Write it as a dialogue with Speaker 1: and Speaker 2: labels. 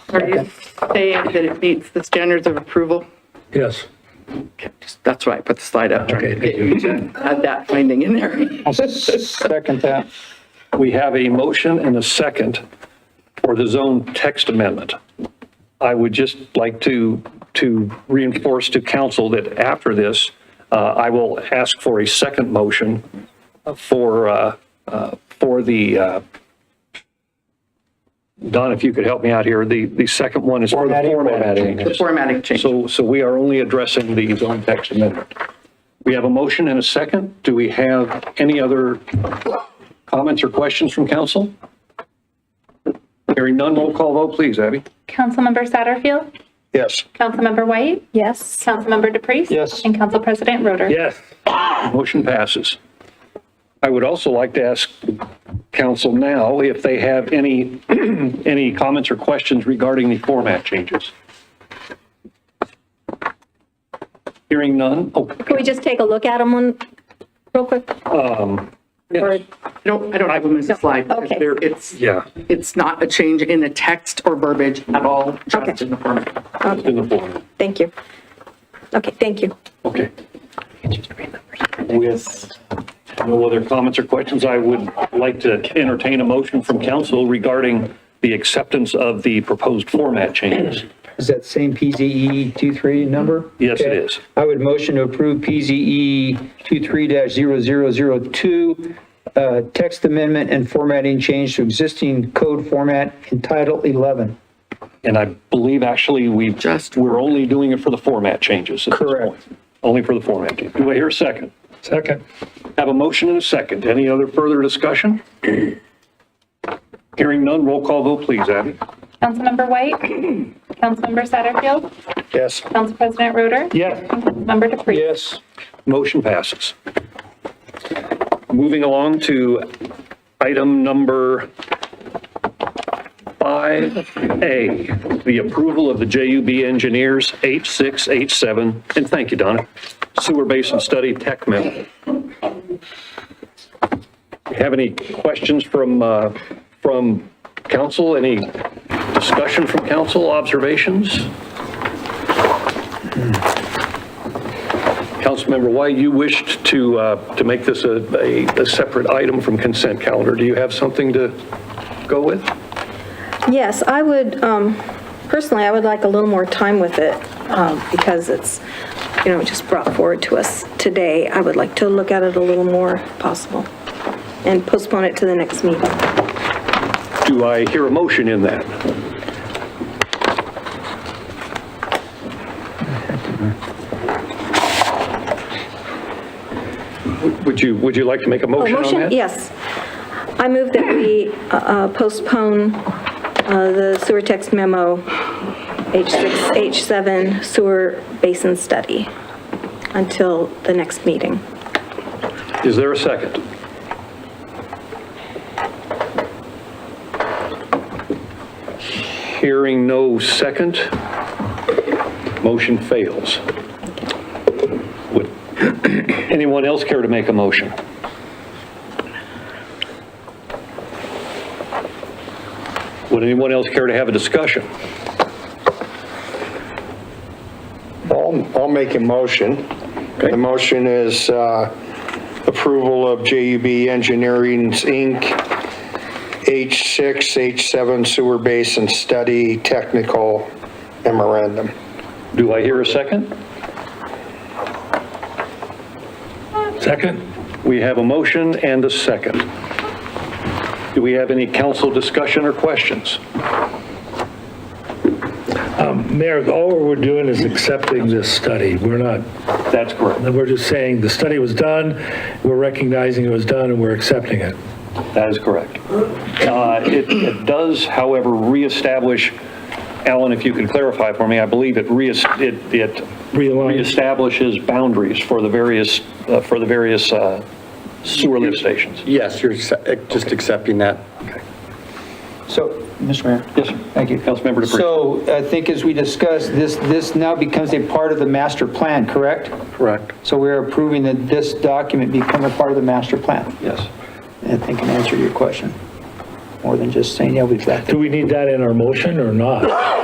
Speaker 1: Are you saying that it meets the standards of approval?
Speaker 2: Yes.
Speaker 1: Okay, just- That's why I put the slide up, trying
Speaker 2: Okay,
Speaker 1: to
Speaker 2: thank
Speaker 1: get
Speaker 2: you.
Speaker 1: you to add that finding in there.
Speaker 2: I'll second that. We have a motion and a second for the zone text amendment. I would just like to, to reinforce to council that after this, uh, I will ask for a second motion for, uh, uh, for the, uh, Don, if you could help me out here, the, the second one is for the format
Speaker 1: The
Speaker 2: change.
Speaker 1: formatting change.
Speaker 2: So, so we are only addressing the zone text amendment. We have a motion and a second. Do we have any other comments or questions from council? Hearing none, roll call vote, please, Abby.
Speaker 3: Councilmember Satterfield,
Speaker 2: Yes.
Speaker 3: Councilmember White,
Speaker 4: Yes.
Speaker 3: Councilmember DePreez.
Speaker 2: Yes.
Speaker 3: And Council President Roder.
Speaker 2: Yes. Motion passes. I would also like to ask council now if they have any, any comments or questions regarding the format changes. Hearing none. Oh,
Speaker 4: Can we just take a look at them one, real quick? Or-
Speaker 1: I don't, I don't have them as a slide. because
Speaker 4: Okay.
Speaker 1: they're- It's,
Speaker 2: yeah,
Speaker 1: it's not a change in the text or verbiage at all, just
Speaker 4: Okay.
Speaker 1: in the format.
Speaker 2: it's in the format.
Speaker 4: Thank you. Okay, thank you.
Speaker 2: Okay. With no other comments or questions, I would like to entertain a motion from council regarding the acceptance of the proposed format changes.
Speaker 5: Is that same PZE 23 number?
Speaker 2: Yes, it
Speaker 5: Okay.
Speaker 2: is.
Speaker 5: I would motion to approve E PZE 23-0002, uh, text amendment and formatting change to existing code format in Title 11.
Speaker 2: And I believe actually we've,
Speaker 1: Just-
Speaker 2: we're only doing it for the format changes at this
Speaker 5: Correct.
Speaker 2: point. Only for the format. change. Do I hear a second?
Speaker 5: Second.
Speaker 2: Have a motion and a second. Any other further discussion? Hearing none, roll call vote, please, Abby.
Speaker 3: Councilmember White, Councilmember Satterfield,
Speaker 2: Yes.
Speaker 3: Council President Roder.
Speaker 2: Yes.
Speaker 3: And Councilmember DePreez.
Speaker 2: Yes. Motion passes. Moving along to item number 5A, the approval of the JUB Engineers 8687, and thank you, Donna, Sewer Basin Study Tech Memo. Have any questions from, uh, from council? Any discussion from council, observations? Councilmember White, you wished to, uh, to make this a, a a separate item from consent calendar. Do you have something to go with?
Speaker 4: Yes, I would, um, personally, I would like a little more time with it um, because it's, you know, just brought forward to us today. I would like to look at it a little more if possible and postpone it to the next meeting.
Speaker 2: Do I hear a motion in that? Would you, would you like to make a
Speaker 4: Oh,
Speaker 2: motion on that?
Speaker 4: motion, yes. I move that we uh, uh, postpone uh, the sewer text memo, H6, H7 sewer basin study until the next meeting.
Speaker 2: Is there a second? Hearing no second, motion fails. Would anyone else care to make a motion? Would anyone else care to have a discussion?
Speaker 6: I'll, I'll make a motion. The motion is uh, approval of JUB Engineering, Inc., H6, H7 Sewer Basin Study Technical Memorandum.
Speaker 2: Do I hear a second? Second. We have a motion and a second. Do we have any council discussion or questions?
Speaker 7: Mayor, all we're doing is accepting this study. We're not,
Speaker 2: That's correct.
Speaker 7: we're just saying the study was done, we're recognizing it was done, and we're accepting it.
Speaker 2: That is correct. Uh, It it does, however, reestablish, Alan, if you could clarify for me, I believe it rees- it it
Speaker 7: Realign.
Speaker 2: reestablishes boundaries for the various, uh, for the various uh, sewer lift stations.
Speaker 8: Yes, you're accept- just accepting that.
Speaker 5: So, Mr. Mayor.
Speaker 2: Yes, sir.
Speaker 5: Thank you.
Speaker 2: Councilmember DePreez.
Speaker 5: So I think as we discussed, this, this now becomes a part of the master plan, correct?
Speaker 8: Correct.
Speaker 5: So we're approving that this document become a part of the master plan.
Speaker 2: Yes.
Speaker 5: I think can answer your question, more than just saying, yeah, we've got that.
Speaker 7: Do we need that in our motion or not?